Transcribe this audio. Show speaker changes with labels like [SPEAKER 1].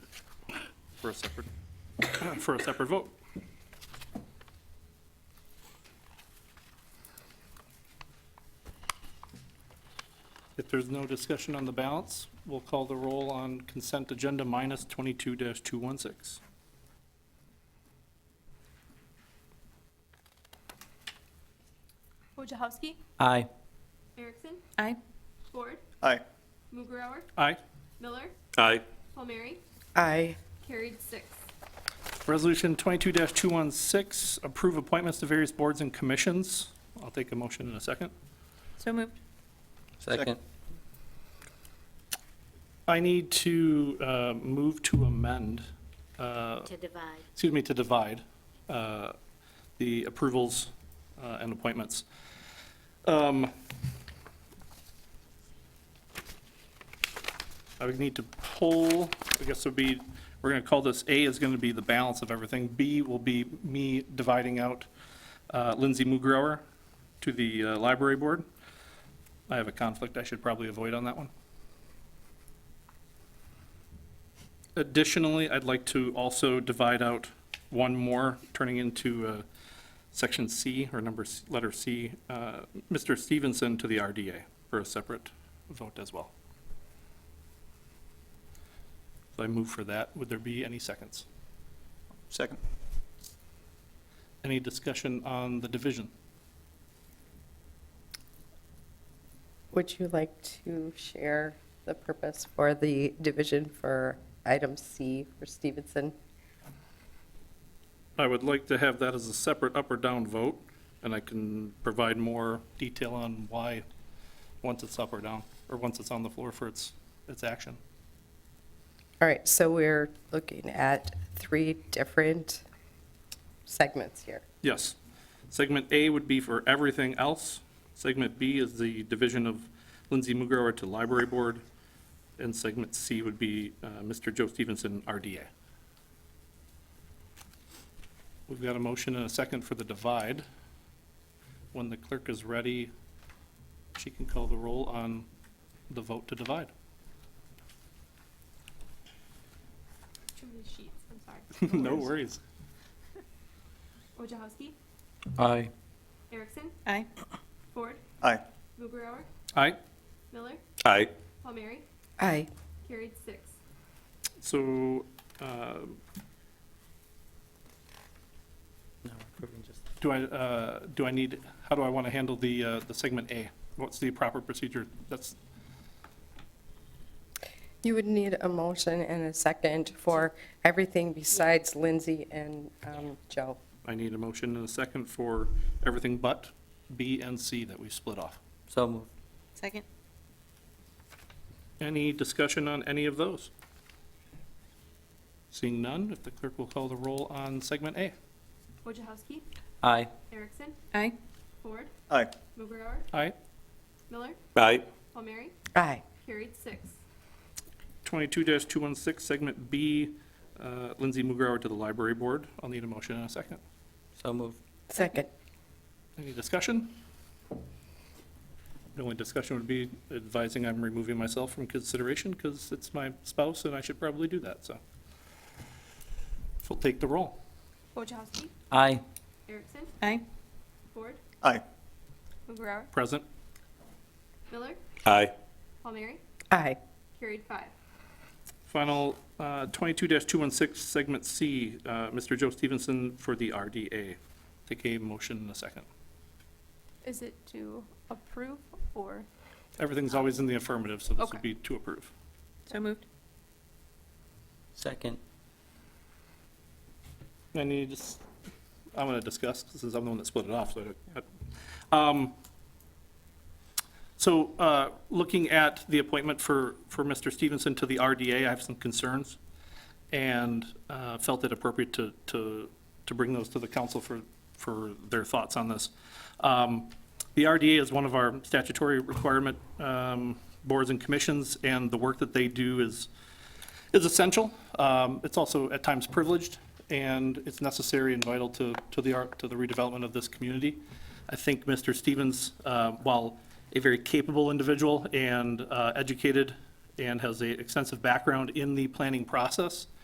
[SPEAKER 1] for a separate, for a separate vote. If there's no discussion on the balance, we'll call the roll on consent agenda minus 22-216.
[SPEAKER 2] Wojciechowski,
[SPEAKER 3] Aye.
[SPEAKER 2] Erickson,
[SPEAKER 4] Aye.
[SPEAKER 2] Ford,
[SPEAKER 5] Aye.
[SPEAKER 2] Mugrower,
[SPEAKER 1] Aye.
[SPEAKER 2] Miller,
[SPEAKER 1] Aye.
[SPEAKER 2] Palmieri,
[SPEAKER 4] Aye.
[SPEAKER 2] carried six.
[SPEAKER 1] Resolution 22-216, approve appointments to various boards and commissions. I'll take a motion in a second.
[SPEAKER 4] So moved.
[SPEAKER 3] Second.
[SPEAKER 1] I need to uh, move to amend, uh,
[SPEAKER 6] to divide.
[SPEAKER 1] excuse me, to divide uh, the approvals uh, and appointments. Um, I would need to pull, I guess it would be, we're going to call this, A is going to be the balance of everything. B will be me dividing out uh, Lindsay Mugrower to the uh, library board. I have a conflict I should probably avoid on that one. Additionally, I'd like to also divide out one more, turning into uh, section C, or number, C- letter C, uh, Mr. Stevenson to the RDA for a separate vote as well. So I move for that. Would there be any seconds?
[SPEAKER 5] Second.
[SPEAKER 1] Any discussion on the division?
[SPEAKER 7] Would you like to share the purpose for the division for item C for Stevenson?
[SPEAKER 1] I would like to have that as a separate up or down vote, and I can provide more detail on why, once it's up or down, or once it's on the floor for its, its action.
[SPEAKER 7] All right, so we're looking at three different segments here.
[SPEAKER 1] Yes. Segment A would be for everything else. Segment B is the division of Lindsay Mugrower to Library Board. And segment C would be uh, Mr. Joe Stevenson, RDA. We've got a motion and a second for the divide. When the clerk is ready, she can call the roll on the vote to divide.
[SPEAKER 2] Too many sheets, I'm sorry.
[SPEAKER 1] No worries.
[SPEAKER 2] Wojciechowski,
[SPEAKER 3] Aye.
[SPEAKER 2] Erickson,
[SPEAKER 4] Aye.
[SPEAKER 2] Ford,
[SPEAKER 5] Aye.
[SPEAKER 2] Mugrower,
[SPEAKER 1] Aye.
[SPEAKER 2] Miller,
[SPEAKER 5] Aye.
[SPEAKER 2] Palmieri,
[SPEAKER 7] Aye.
[SPEAKER 2] carried six.
[SPEAKER 1] So, um, do I, uh, do I need, how do I want to handle the, uh, the segment A? What's the proper procedure? That's,
[SPEAKER 7] You would need a motion and a second for everything besides Lindsay and um, Joe.
[SPEAKER 1] I need a motion and a second for everything but B and C that we split off.
[SPEAKER 3] So moved.
[SPEAKER 4] Second.
[SPEAKER 1] Any discussion on any of those? Seeing none, if the clerk will call the roll on segment A.
[SPEAKER 2] Wojciechowski,
[SPEAKER 3] Aye.
[SPEAKER 2] Erickson,
[SPEAKER 4] Aye.
[SPEAKER 2] Ford,
[SPEAKER 5] Aye.
[SPEAKER 2] Mugrower,
[SPEAKER 1] Aye.
[SPEAKER 2] Miller,
[SPEAKER 5] Aye.
[SPEAKER 2] Palmieri,
[SPEAKER 7] Aye.
[SPEAKER 2] carried six.
[SPEAKER 1] Twenty-two two one six, segment B, uh, Lindsay Mugrower to the library board. I'll need a motion and a second.
[SPEAKER 3] So moved.
[SPEAKER 7] Second.
[SPEAKER 1] Any discussion? The only discussion would be advising I'm removing myself from consideration because it's my spouse and I should probably do that, so. We'll take the roll.
[SPEAKER 2] Wojciechowski,
[SPEAKER 3] Aye.
[SPEAKER 2] Erickson,
[SPEAKER 4] Aye.
[SPEAKER 2] Ford,
[SPEAKER 5] Aye.
[SPEAKER 2] Mugrower,
[SPEAKER 1] Present.
[SPEAKER 2] Miller,
[SPEAKER 5] Aye.
[SPEAKER 2] Palmieri,
[SPEAKER 7] Aye.
[SPEAKER 2] carried five.
[SPEAKER 1] Final uh, twenty-two two one six, segment C, uh, Mr. Joe Stevenson for the RDA. Take a motion in a second.
[SPEAKER 2] Is it to approve or?
[SPEAKER 1] Everything's always in the affirmative, so this
[SPEAKER 2] Okay.
[SPEAKER 1] would be to approve.
[SPEAKER 4] So moved.
[SPEAKER 3] Second.
[SPEAKER 1] I need to, s- I'm going to discuss, since I'm the one that split it off, so. I don't- um, So, uh, looking at the appointment for, for Mr. Stevenson to the RDA, I have some concerns, and uh, felt it appropriate to, to, to bring those to the council for, for their thoughts on this. Um, The RDA is one of our statutory requirement um, boards and commissions, and the work that they do is, is essential. Um, It's also at times privileged, and it's necessary and vital to, to the, ar- to the redevelopment of this community. I think Mr. Stevens, uh, while a very capable individual and uh, educated and has a extensive background in the planning process,